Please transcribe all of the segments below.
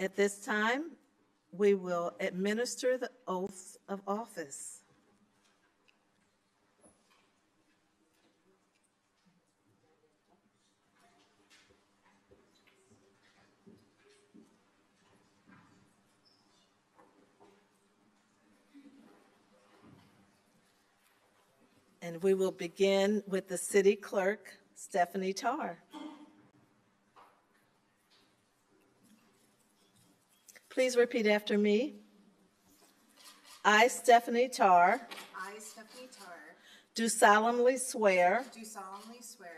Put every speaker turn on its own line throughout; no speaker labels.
At this time, we will administer the oaths of office. And we will begin with the city clerk, Stephanie Tarr. Please repeat after me. I, Stephanie Tarr,
I, Stephanie Tarr,
do solemnly swear
do solemnly swear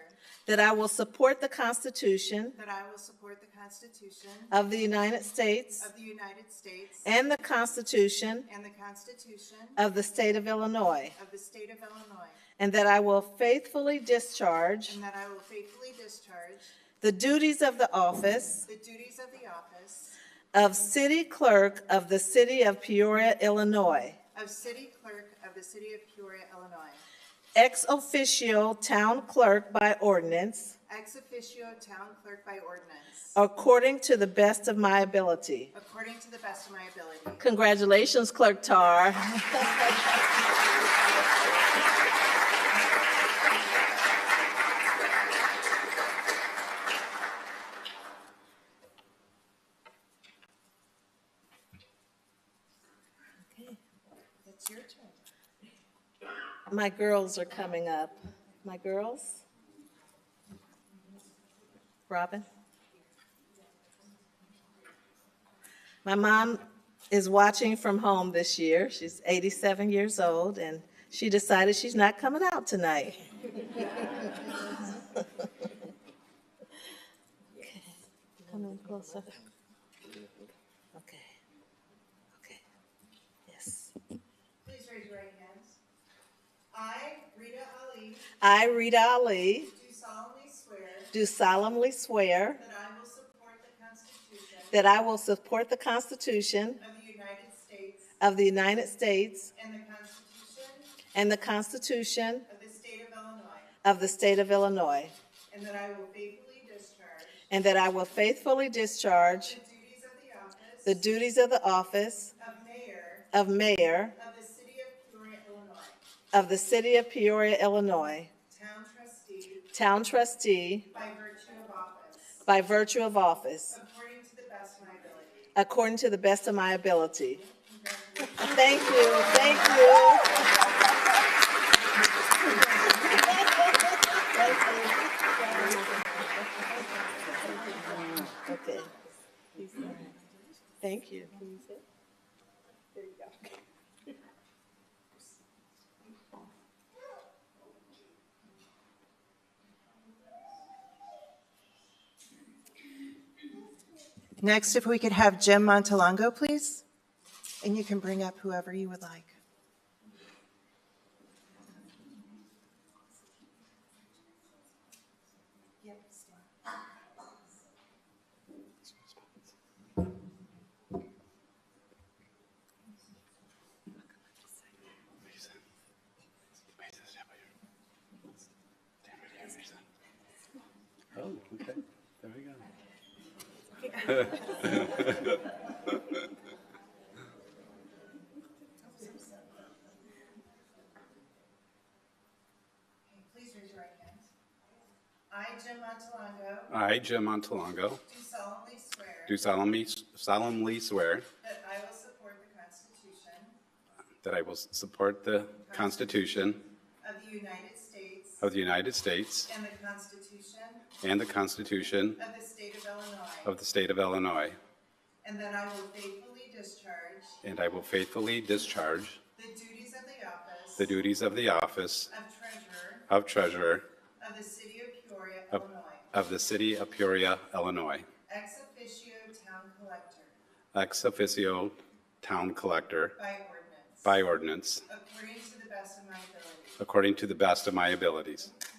that I will support the Constitution
that I will support the Constitution
of the United States
of the United States
and the Constitution
and the Constitution
of the State of Illinois,
of the State of Illinois,
and that I will faithfully discharge
and that I will faithfully discharge
the duties of the office
the duties of the office
of City Clerk of the City of Peoria, Illinois,
of City Clerk of the City of Peoria, Illinois,
ex officio Town Clerk by ordinance,
ex officio Town Clerk by ordinance,
according to the best of my ability.
according to the best of my ability.
Congratulations, Clerk Tar.
It's your turn.
My girls are coming up. My girls? Robin? My mom is watching from home this year. She's 87 years old, and she decided she's not coming out tonight. Come in closer. Okay. Okay. Yes.
Please raise your right hands. I, Rita Ali,
I, Rita Ali,
do solemnly swear
do solemnly swear.
that I will support the Constitution
That I will support the Constitution
of the United States
of the United States
and
and the
the Constitution
Constitution
of the State of Illinois,
of the State of Illinois,
and that I will faithfully discharge
and that I will faithfully discharge
the duties of the
the
office
duties of the office
of Mayor
of Mayor
of the City of
of the City of Peoria,
Peoria, Illinois,
Illinois,
Town Trustee
Town Trustee
by virtue of office,
by virtue of office,
according to the best
according to the best of
of my ability.
my ability. Thank you, thank you. Okay. Thank you.
Next, if we could have Jim Montalongo, please, and you can bring up whoever you would like.
Oh, okay. There we go.
Please raise your right hands. I, Jim Montalongo,
I, Jim Montalongo,
do solemnly swear
do solemnly solemnly swear
that I will support the Constitution
that I will support the Constitution
of the United States
of the United States
and the Constitution
and the Constitution
of the State of Illinois,
of the State of Illinois,
and that I will faithfully discharge
and I will faithfully discharge
the duties of the office
the duties of the office
of Treasurer
of Treasurer
of the City of Peoria,
Of-
Illinois,
of the City of Peoria, Illinois,
ex officio Town Collector
ex officio Town Collector
by ordinance,
by ordinance,
according to the best of my ability.
according to the best of my abilities.